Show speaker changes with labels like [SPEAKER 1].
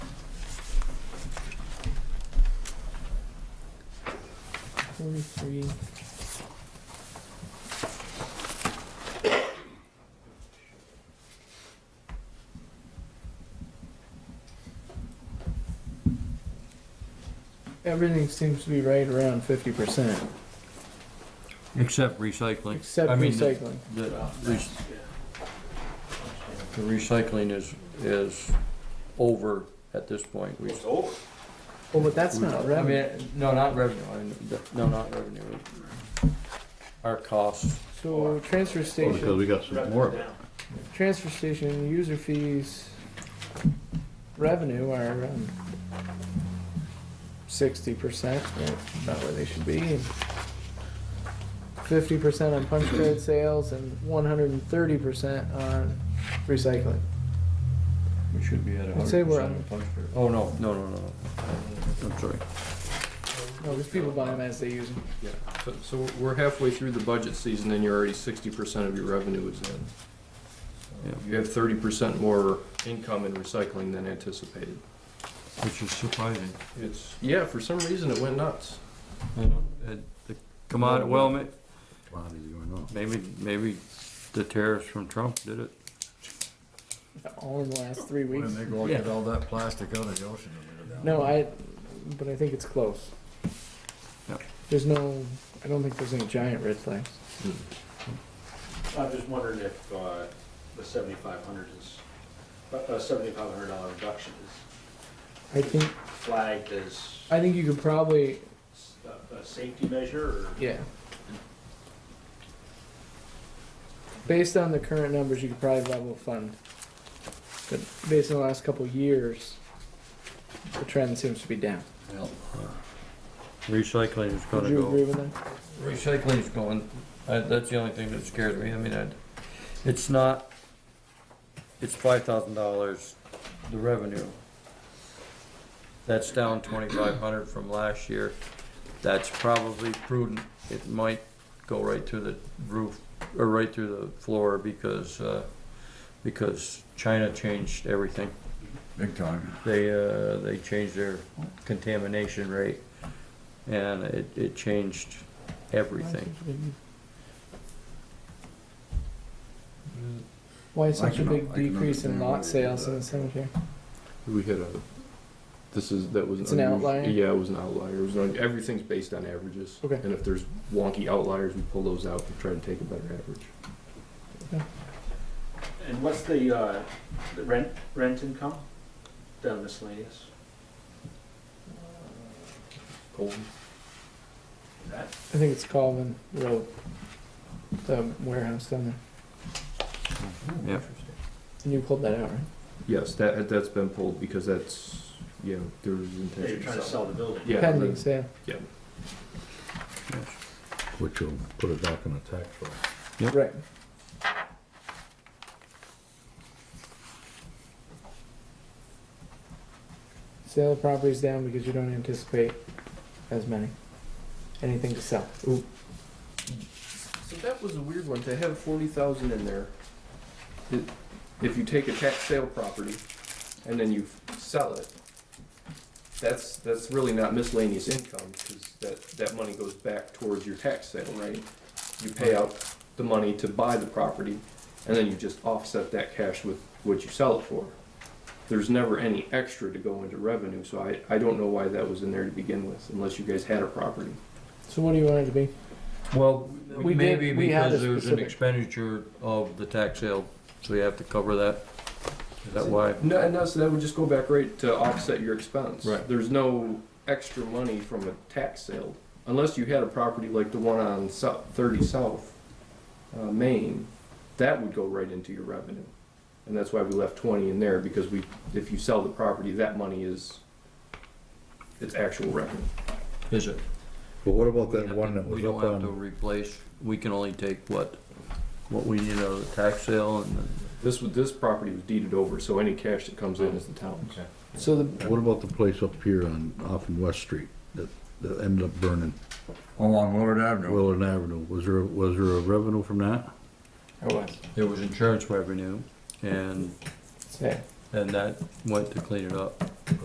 [SPEAKER 1] forty-three. Everything seems to be right around fifty percent,
[SPEAKER 2] Except recycling.
[SPEAKER 1] except
[SPEAKER 2] I mean, the-
[SPEAKER 1] recycling.
[SPEAKER 2] The, re- the recycling is, is over at this point. We-
[SPEAKER 3] It's over.
[SPEAKER 1] Well, but that's not
[SPEAKER 2] I
[SPEAKER 1] revenue,
[SPEAKER 2] mean, no, not revenue, I mean, the- no, not revenue. Our costs,
[SPEAKER 1] so transfer
[SPEAKER 4] Well, Oh, because
[SPEAKER 1] station,
[SPEAKER 4] we got some more of it.
[SPEAKER 3] Down.
[SPEAKER 1] transfer station, user fees, revenue are around sixty percent, right, about where they should be. Fifty percent on punch card sales and one hundred and thirty percent on recycling.
[SPEAKER 5] We should be at a
[SPEAKER 1] I'd say
[SPEAKER 5] hundred
[SPEAKER 1] we're
[SPEAKER 5] percent
[SPEAKER 1] on-
[SPEAKER 5] of punch card.
[SPEAKER 2] oh, no, no, no, no, no, I'm sorry.
[SPEAKER 1] No, because people buy them as they use them.
[SPEAKER 6] Yeah, so, so we're halfway through the budget season and you're already sixty percent of your revenue is in.
[SPEAKER 2] Yeah.
[SPEAKER 6] You have thirty percent more income in recycling than anticipated.
[SPEAKER 2] Which is surprising.
[SPEAKER 6] It's, yeah, for some reason it went nuts.
[SPEAKER 2] I know, and the commodity, well, ma-
[SPEAKER 4] Commodities going up.
[SPEAKER 2] maybe, maybe the tariffs from Trump did it.
[SPEAKER 1] all in the last three
[SPEAKER 4] When
[SPEAKER 1] weeks.
[SPEAKER 4] they go and get all that plastic out of the ocean. and they're down.
[SPEAKER 1] No, I, but I think it's close.
[SPEAKER 2] Yeah.
[SPEAKER 1] There's no, I don't think there's any giant red flags.
[SPEAKER 3] I'm just wondering if, uh, the seventy-five hundred is, uh, a seventy-five hundred dollar reduction is
[SPEAKER 1] I think,
[SPEAKER 3] flagged as
[SPEAKER 1] I think you could probably,
[SPEAKER 3] s- a, a safety measure or?
[SPEAKER 1] yeah. Based on the current numbers, you could probably level fund. But based on the last couple of years, the trend seems to be down.
[SPEAKER 4] Well,
[SPEAKER 2] Recycling is
[SPEAKER 1] Would
[SPEAKER 2] gonna
[SPEAKER 1] you agree
[SPEAKER 2] go,
[SPEAKER 1] with that?
[SPEAKER 2] recycling is going, I- that's the only thing that scares me, I mean, I, it's not, it's five thousand dollars, the revenue. That's down twenty-five hundred from last year, that's probably prudent, it might go right through the roof, or right through the floor, because, uh, because China changed everything.
[SPEAKER 4] Big time.
[SPEAKER 2] They, uh, they changed their contamination rate and it, it changed everything.
[SPEAKER 1] Why such a
[SPEAKER 4] can- I
[SPEAKER 1] big
[SPEAKER 4] can
[SPEAKER 1] decrease in
[SPEAKER 4] understand why they
[SPEAKER 1] lot
[SPEAKER 4] did
[SPEAKER 1] sales in
[SPEAKER 4] that.
[SPEAKER 1] the cemetery?
[SPEAKER 6] We had a, this is, that was.
[SPEAKER 1] It's an unusual- outlier?
[SPEAKER 6] Yeah, it was an outlier. everything's based on averages.
[SPEAKER 1] Okay.
[SPEAKER 6] And if there's wonky outliers, we pull those out and try to take a better average.
[SPEAKER 3] And what's the, uh, the rent, rent income? The miscellaneous?
[SPEAKER 6] Colton?
[SPEAKER 3] Is that,
[SPEAKER 1] I think it's Calvin Road, the warehouse down there.
[SPEAKER 2] Yeah.
[SPEAKER 1] And you pulled that out, right?
[SPEAKER 6] Yes, that, that's been pulled because that's, yeah, there was intention.
[SPEAKER 3] they're trying to sell the building?
[SPEAKER 6] Yeah.
[SPEAKER 1] Pending
[SPEAKER 6] the-
[SPEAKER 1] sale.
[SPEAKER 4] Which will put it back in the tax roll.
[SPEAKER 2] Yep.
[SPEAKER 1] Right. Sale of property's down because you don't anticipate as many. Anything to sell.
[SPEAKER 6] So that was a weird one, to have forty thousand in there. it- If you take a tax sale property and then you sell it, that's, that's really not miscellaneous income, because that, that money goes back towards your tax sale, right? You pay out the money to buy the property, and then you just offset that cash with what you sell it for. There's never any extra to go into revenue, so I, I don't know why that was in there to begin with, unless you guys had a property.
[SPEAKER 1] So what do you want it to be?
[SPEAKER 2] Well,
[SPEAKER 1] We did-
[SPEAKER 2] maybe
[SPEAKER 1] we had a
[SPEAKER 2] because there was an
[SPEAKER 1] specific-
[SPEAKER 2] expenditure of the tax sale, so you have to cover that. Is that why?
[SPEAKER 6] No, and no, so that would just go back right to offset your expense.
[SPEAKER 2] Right.
[SPEAKER 6] There's no extra money from a tax sale, unless you had a property like the one on South, thirty South, uh, Maine, that would go right into your revenue. And that's why we left twenty in there, because we, if you sell the property, that money is, it's actual revenue.
[SPEAKER 2] Is it?
[SPEAKER 4] But what about
[SPEAKER 2] We
[SPEAKER 4] that
[SPEAKER 2] have
[SPEAKER 4] one
[SPEAKER 2] to-
[SPEAKER 4] that was
[SPEAKER 2] We don't
[SPEAKER 4] up
[SPEAKER 2] have to
[SPEAKER 4] on,
[SPEAKER 2] replace, we can only take what, what we, you know, the tax sale and
[SPEAKER 6] This, was- this property was deeded over, so any cash that comes in is the town's.
[SPEAKER 1] So the,
[SPEAKER 4] what about the place up here on, off in West Street that, that ended up burning? Along Oh, Willard Avenue. Willard Avenue. Was there, was there a revenue from that?
[SPEAKER 1] or what?
[SPEAKER 2] there was insurance revenue and,
[SPEAKER 1] Sale.
[SPEAKER 2] and that went to clean it up.